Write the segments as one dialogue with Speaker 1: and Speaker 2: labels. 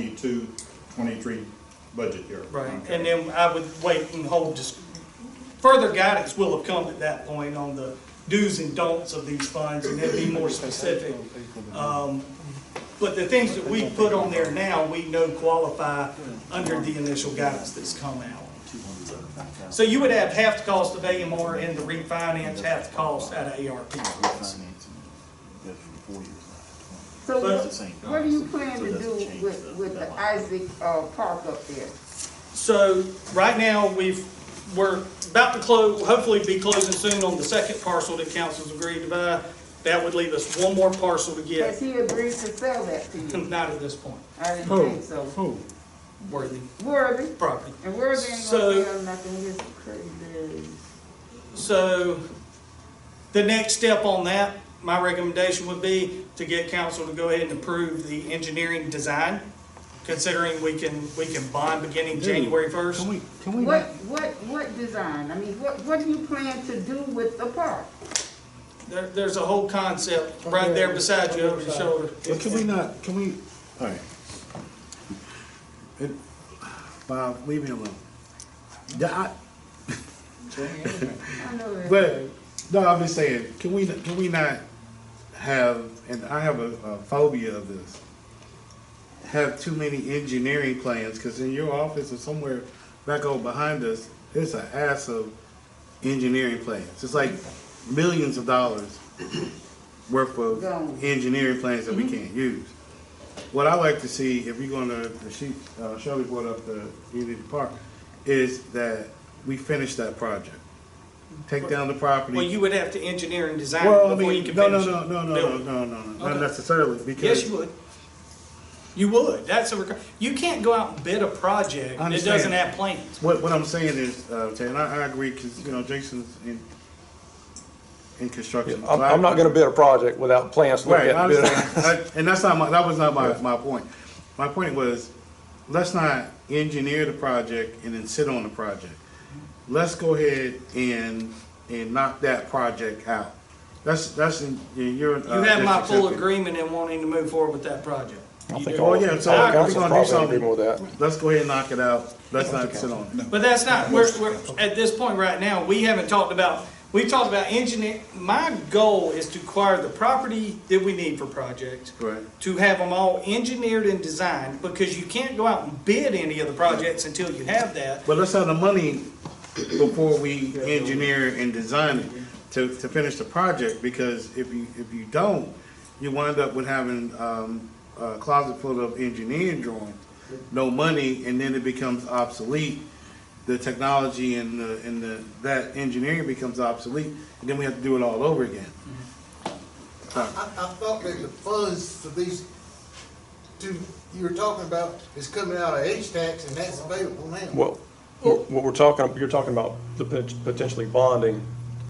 Speaker 1: 22, 23 budget year.
Speaker 2: Right,
Speaker 1: Okay.
Speaker 2: and then I would wait and hold, just, further guidance will have come at that point on the do's and don'ts of these funds, and that'd be more specific. Um, But the things that we put on there now, we know qualify under the initial guidance that's come out. So you would have half the cost of AMR and the refinance, half the cost out of ARP.
Speaker 3: So
Speaker 2: But-
Speaker 3: what, what do you plan to do with, with the Isaac, uh, park up there?
Speaker 2: So right now, we've, we're about to close, hopefully be closing soon on the second parcel that council's agreed to buy. That would leave us one more parcel to
Speaker 3: Has
Speaker 2: get,
Speaker 3: he agreed to sell that to you?
Speaker 2: not at this point,
Speaker 3: I didn't think so.
Speaker 2: worthy
Speaker 3: Worthy,
Speaker 2: property.
Speaker 3: and Worthy ain't
Speaker 2: So-
Speaker 3: gonna sell nothing, he's crazy.
Speaker 2: So the next step on that, my recommendation would be to get council to go ahead and approve the engineering design, considering we can, we can bond beginning January first.
Speaker 4: Can we, can we,
Speaker 3: What,
Speaker 4: not-
Speaker 3: what, what design, I mean, what, what do you plan to do with the park?
Speaker 2: There, there's a whole concept right there beside you over your shoulder.
Speaker 4: but can we not, can we, alright. It- Bob, leave me alone. The, I,
Speaker 3: I know that.
Speaker 4: but, no, I'm just saying, can we, can we not have, and I have a a phobia of this. Have too many engineering plans, cause in your office or somewhere back over behind us, it's an ass of engineering plans. It's like millions of dollars worth of
Speaker 3: Gone.
Speaker 4: engineering plans that we can't use. What I like to see, if you're gonna, the she, uh, Shelby brought up the community park, is that we finish that project. Take down the property.
Speaker 2: Well, you would have to engineer and design
Speaker 4: Well, I
Speaker 2: before you
Speaker 4: mean,
Speaker 2: can
Speaker 4: no, no,
Speaker 2: finish.
Speaker 4: no, no, no,
Speaker 2: build
Speaker 4: no,
Speaker 2: it.
Speaker 4: no, no, no, not
Speaker 2: Okay.
Speaker 4: necessarily,
Speaker 2: Yes,
Speaker 4: because
Speaker 2: you would. You would, that's a, requ- you can't go out and bid a project that
Speaker 4: Understand.
Speaker 2: doesn't have plans.
Speaker 4: what, what I'm saying is, uh, Ted, and I, I agree, because, you know, Jason's in, in construction.
Speaker 5: I'm, I'm not gonna bid a project without plans to look
Speaker 4: Right,
Speaker 5: at.
Speaker 4: I
Speaker 5: and bid.
Speaker 4: understand, I- and that's not my, that was not my, my point. My point was, let's not engineer the project and then sit on the project. Let's go ahead and, and knock that project out. That's, that's, in- in your.
Speaker 5: Uh,
Speaker 4: uh,
Speaker 2: You have my full agreement in wanting to move forward with that project.
Speaker 5: I don't
Speaker 2: You
Speaker 5: think
Speaker 2: do.
Speaker 4: Oh,
Speaker 5: all-
Speaker 4: yeah, so
Speaker 5: all
Speaker 4: we're
Speaker 5: councils
Speaker 4: gonna do
Speaker 5: probably
Speaker 4: something.
Speaker 5: agree with that.
Speaker 4: Let's go ahead and knock it out, let's not sit on it.
Speaker 2: But that's not, we're, we're, at this point right now, we haven't talked about, we've talked about engineer, my goal is to acquire the property that we need for projects.
Speaker 4: Right.
Speaker 2: To have them all engineered and designed, because you can't go out and bid any of the projects until you have that.
Speaker 4: But let's have the money before we engineer and design it to, to finish the project, because if you, if you don't, you wind up with having, um, a closet full of engineering drawings, no money, and then it becomes obsolete. The technology and the, and the, that engineering becomes obsolete, and then we have to do it all over again.
Speaker 6: I, I thought that the funds for these two, you were talking about is coming out of H-Tax and that's available now.
Speaker 5: Well, what what we're talking, you're talking about the pot- potentially bonding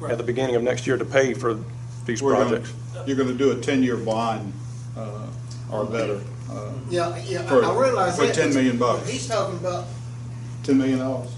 Speaker 5: at the beginning of next year to pay for these
Speaker 1: We're gonna-
Speaker 5: projects.
Speaker 1: You're gonna do a ten-year bond, uh, or better, uh,
Speaker 6: Yeah, yeah, I-
Speaker 1: For-
Speaker 6: I realize
Speaker 1: for
Speaker 6: that.
Speaker 1: 10 million bucks.
Speaker 6: He's talking about
Speaker 1: ten million dollars,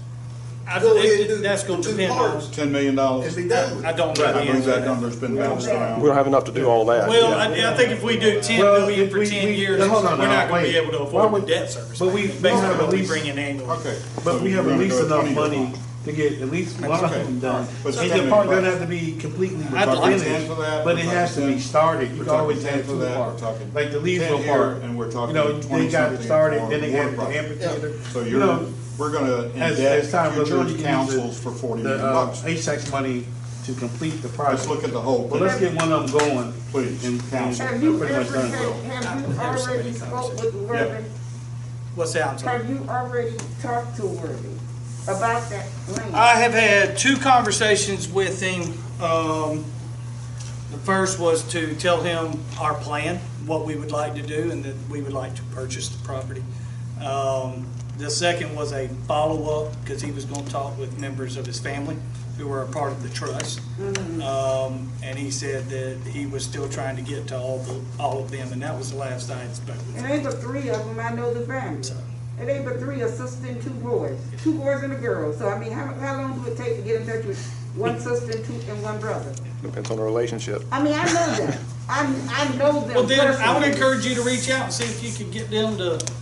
Speaker 2: I,
Speaker 6: Go ahead and do-
Speaker 2: that's gonna
Speaker 6: do
Speaker 2: depend on.
Speaker 6: parts.
Speaker 1: ten million dollars.
Speaker 6: is he done with
Speaker 2: I
Speaker 6: it?
Speaker 2: don't know the
Speaker 1: I believe
Speaker 2: answer to
Speaker 1: that
Speaker 2: that.
Speaker 1: number's been bounced
Speaker 5: We
Speaker 1: around.
Speaker 5: don't have enough to do all that.
Speaker 2: Well, I, I think if we do ten
Speaker 4: Well,
Speaker 2: million
Speaker 4: if
Speaker 2: for
Speaker 4: we-
Speaker 2: ten
Speaker 4: we-
Speaker 2: years,
Speaker 4: now,
Speaker 2: we're
Speaker 4: hold
Speaker 2: not
Speaker 4: on now,
Speaker 2: gonna be
Speaker 4: wait.
Speaker 2: able to
Speaker 4: Why
Speaker 2: afford the
Speaker 4: would-
Speaker 2: debt service.
Speaker 4: but we-
Speaker 2: Based
Speaker 4: we
Speaker 2: on
Speaker 4: have
Speaker 2: what
Speaker 4: at
Speaker 2: we
Speaker 4: least-
Speaker 2: bring in annually.
Speaker 1: Okay.
Speaker 4: But
Speaker 1: so
Speaker 4: we have
Speaker 1: we're
Speaker 4: at
Speaker 1: gonna
Speaker 4: least
Speaker 1: do a
Speaker 4: enough
Speaker 1: 20 year
Speaker 4: money
Speaker 1: bond.
Speaker 4: to get at least one of
Speaker 1: Okay,
Speaker 4: them done.
Speaker 1: but
Speaker 4: And
Speaker 1: something
Speaker 4: the park
Speaker 1: about-
Speaker 4: doesn't have to be completely
Speaker 2: I'd like to
Speaker 4: finished,
Speaker 1: answer that.
Speaker 4: but it has to be started. You
Speaker 1: We're
Speaker 4: can
Speaker 1: talking
Speaker 4: always add
Speaker 1: 10 for
Speaker 4: to the
Speaker 1: that,
Speaker 4: park,
Speaker 1: we're talking
Speaker 4: like the
Speaker 1: 10
Speaker 4: Leesville
Speaker 1: here,
Speaker 4: Park.
Speaker 1: and we're talking
Speaker 4: You know, they
Speaker 1: 20
Speaker 4: got it
Speaker 1: something
Speaker 4: started,
Speaker 1: for
Speaker 4: then they
Speaker 1: water
Speaker 4: added the
Speaker 1: project.
Speaker 4: amphitheater.
Speaker 1: So
Speaker 4: You
Speaker 1: you're,
Speaker 4: know,
Speaker 1: we're gonna
Speaker 4: as, as time
Speaker 1: indebt
Speaker 4: goes on, you
Speaker 1: future
Speaker 4: can
Speaker 1: councils
Speaker 4: use
Speaker 1: for
Speaker 4: the,
Speaker 1: forty
Speaker 4: the,
Speaker 1: million
Speaker 4: uh,
Speaker 1: bucks.
Speaker 4: HTAX money to complete the
Speaker 1: Let's
Speaker 4: project.
Speaker 1: look at the whole
Speaker 4: But let's
Speaker 1: picture.
Speaker 4: get one of them going.
Speaker 1: Please.
Speaker 4: And council,
Speaker 3: Have
Speaker 4: pretty
Speaker 3: you
Speaker 4: much
Speaker 3: ever,
Speaker 4: done.
Speaker 3: have, have you
Speaker 2: There's so many
Speaker 3: already spoke with
Speaker 1: Yeah.
Speaker 3: Worthy?
Speaker 2: What's that, I'm sorry?
Speaker 3: Have you already talked to Worthy about that land?
Speaker 2: I have had two conversations with him. Um, the first was to tell him our plan, what we would like to do, and that we would like to purchase the property. Um, the second was a follow-up, because he was going to talk with members of his family who were a part of the trust. Um, and he said that he was still trying to get to all the, all of them, and that was the last I had spoken with
Speaker 3: It
Speaker 2: him.
Speaker 3: ain't but three of them, I know the family. It ain't but three, a sister and two boys, two boys and a girl. So I mean, how, how long do it take to get in touch with one sister and two, and one brother?
Speaker 5: Depends on the relationship.
Speaker 3: I mean, I know them, I, I know them
Speaker 2: Well, then I would
Speaker 3: personally.
Speaker 2: encourage you to reach out and see if you could get them to